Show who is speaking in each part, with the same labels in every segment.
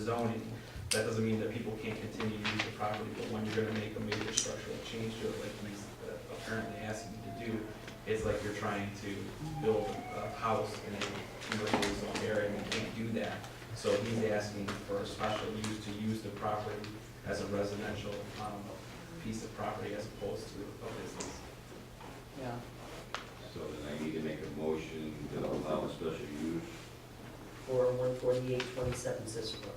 Speaker 1: zoning, that doesn't mean that people can't continue to use the property, but when you're gonna make a major structural change to it, like he's uh, apparently asking you to do, it's like you're trying to build a house in a commercial zone area, and you can't do that. So he's asking for a special use to use the property as a residential, um, piece of property as opposed to a business.
Speaker 2: Yeah,
Speaker 3: So then I need to make a motion to allow a special use.
Speaker 2: for oh one forty-eight twenty-seven Cicero.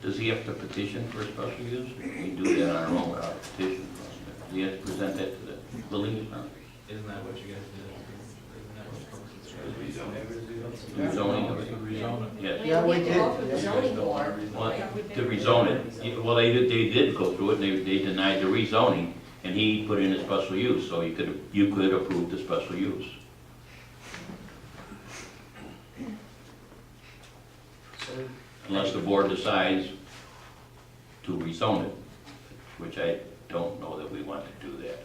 Speaker 4: Does he have to petition for a special use? We do that on our own without petition. He has to present that to the building department.
Speaker 1: Isn't that what you guys did? Isn't that what comes to
Speaker 3: As we don't-
Speaker 4: Do zoning of it.
Speaker 1: Rezoning.
Speaker 4: Yes.
Speaker 2: Yeah, we
Speaker 5: We have to go through the
Speaker 2: did.
Speaker 5: zoning board.
Speaker 4: Well, to rezone it, Yeah, well, they did, they did go through it, they, they denied the rezoning, and he put in a special use, so you could, you could approve the special use.
Speaker 2: So
Speaker 4: Unless the board decides to rezone it, which I don't know that we want to do that.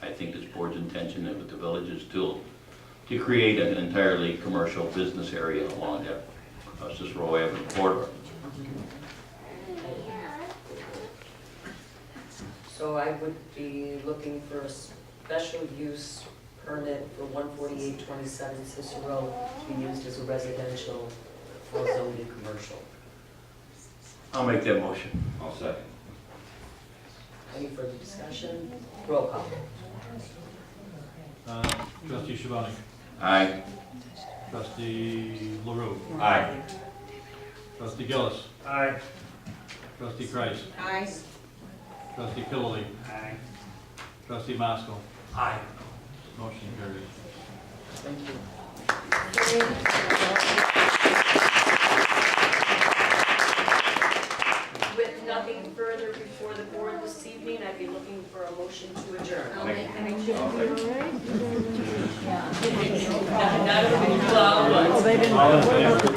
Speaker 4: I think this board's intention of the village is to, to create an entirely commercial business area along that uh, Cicero Avenue corridor.
Speaker 2: So I would be looking for a special use permit for one forty-eight twenty-seven Cicero to be used as a residential for zoning commercial.
Speaker 4: I'll make that motion.
Speaker 3: I'll second.
Speaker 2: Any further discussion? Roll call.
Speaker 6: Uh, Trustee Shabani?
Speaker 4: Aye.
Speaker 6: Trustee LaRue?
Speaker 3: Aye.
Speaker 6: Trustee Gillis?
Speaker 7: Aye.
Speaker 6: Trustee Kreis?
Speaker 5: Aye.
Speaker 6: Trustee Killily?
Speaker 7: Aye.
Speaker 6: Trustee Maskell?
Speaker 7: Aye.
Speaker 6: Motion carries.
Speaker 2: Thank you.
Speaker 5: With nothing further before the board this evening, I'd be looking for a motion to adjourn.
Speaker 3: I'll make
Speaker 5: Not everybody, well,
Speaker 6: All in favor?